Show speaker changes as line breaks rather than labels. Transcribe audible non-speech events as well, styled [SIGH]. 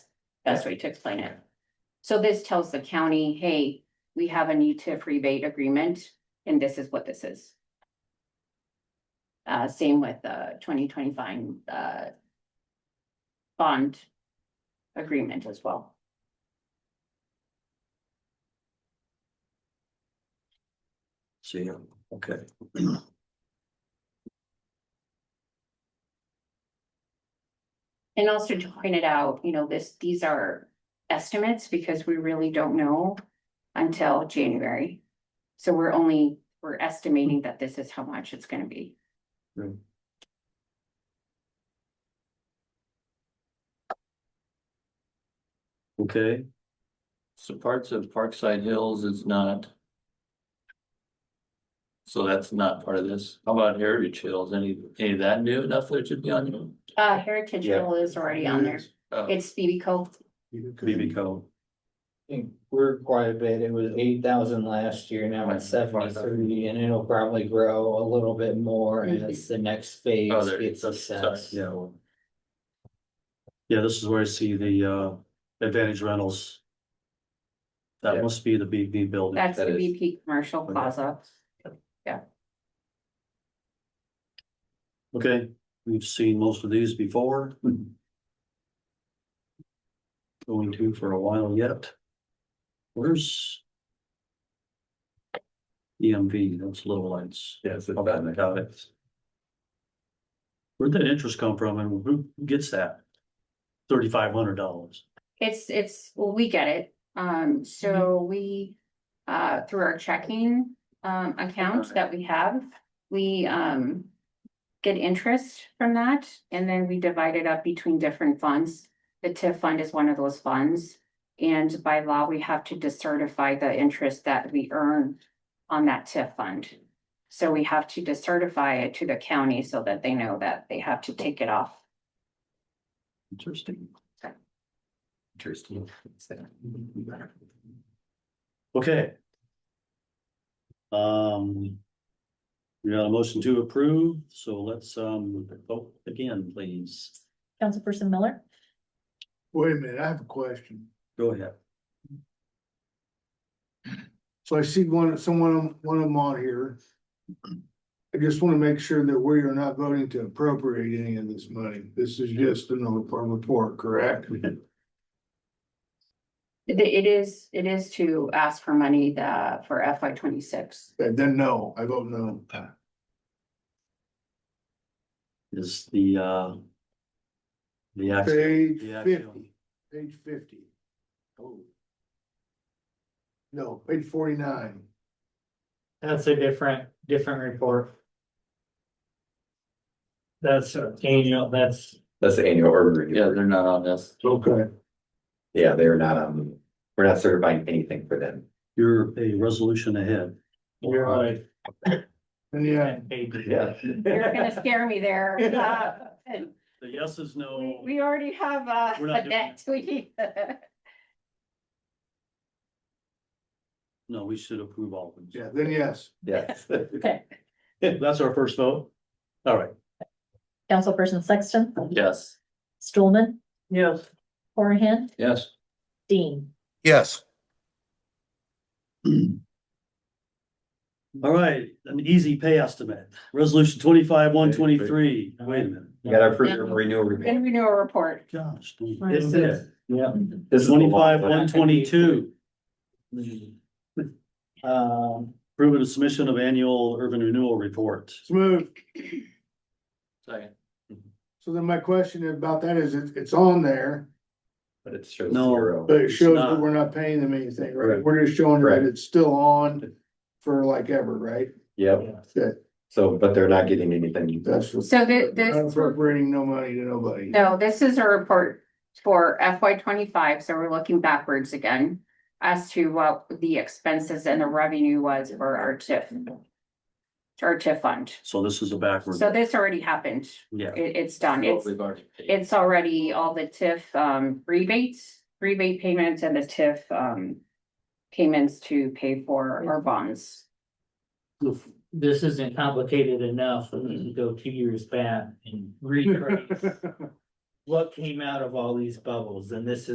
best way to explain it. So this tells the county, hey, we have a new TIF rebate agreement and this is what this is. Uh, same with the twenty twenty five, uh. Bond. Agreement as well.
See, okay.
And also to point it out, you know, this, these are estimates because we really don't know until January. So we're only, we're estimating that this is how much it's gonna be.
Okay. So parts of Parkside Hills is not. So that's not part of this. How about Heritage Hills? Any, any of that new enough that it should be on you?
Uh, Heritage Hill is already on there.
Oh,
It's BB Cove.
BB code.
I think we're quite a bit, it was eight thousand last year, now it's seventy-three, and it'll probably grow a little bit more
Mm-hmm.
as the next phase
Oh, there-
gets
that's- sorry,
assessed.
Yeah. well. Yeah, this is where I see the uh Advantage Rentals. That
Yeah.
must be the BB building.
That's the
That is-
BP Commercial
Okay.
Plaza.
Okay, we've seen most of these before. Going to for a while yet. Where's? E EMV, those little lights.
Yes. it's
Okay,
on
got it. Where'd that interest come from and who gets that? Thirty-five hundred dollars.
It's, it's, well, we get it.
Mm-hmm.
Um, so we, uh, through our checking, um, account
Okay.
that we have, we, um. Get interest from that and then we divide it up between different funds. The TIF fund is one of those funds. And by law, we have to decertify the interest that we earn on that TIF fund. So we have to decertify it to the county so that they know that they have to take it off.
Interesting.
Interesting.
Okay. Um. We got a motion to approve, so let's um vote again, please.
Councilperson Miller,
Wait a minute, I have a question.
Go ahead.
So I see one, someone, one of them on here. I just want to make sure that we are not voting to appropriate any of this money. This is just another part of the report, correct?
It, it is, it is to ask for money the, for FY twenty-six.
And Then no, I vote no.
Is the uh. The action.
Page
the
fifty,
action-
page fifty. Oh. No, page forty-nine.
That's a different, different report. That's, uh, annual, that's,
That's the annual urban
Yeah,
review.
they're not on this.
Okay.
Yeah, they're not, um, we're not certifying anything for them.
You're a resolution ahead.
we're
Uh,
like,
And yeah,
Yeah.
You're gonna scare me [LAUGHS] there. Uh, and
The yes is
We,
no.
we already have uh,
We're not
a debt. We-
No, we should approve all of them.
yeah, then yes.
Yes.
[LAUGHS] That's our first vote. All right.
Councilperson Sexton,
Yes.
Stulman,
yes,
Horahan,
Yes.
Dean.
Yes.
All right, an easy pay estimate. Resolution twenty-five, one twenty-three. Wait a minute.
You gotta approve your renewal review.
And renew a report.
Gosh.
This is-
Yeah.
This is the law.
Twenty-five, one twenty-two,
um,
approve the submission of annual urban renewal report.
Smooth.
Second.
So then my question about that is, it's, it's on there,
But it shows
No.
zero.
but it
It's
shows
not.
that we're not paying them anything, right?
Correct.
We're just showing that
Correct.
it's still on for like ever, right?
Yep,
That,
so, but they're not getting anything.
that's. what-
So thi- this-
Not Appropriating no money to nobody.
No, this is a report for FY twenty-five, so we're looking backwards again as to what the expenses and the revenue was for our TIF. Our TIF fund.
So this is a backward.
So this already happened.
Yeah,
It, it's done.
What
It's
Oh, We've already paid.
it's already all the TIF um rebates, rebate payments and the TIF um. Payments to pay for our bonds.
this isn't complicated enough, we need to go two years
[LAUGHS]
back and retrace what came out of all these bubbles, and this is.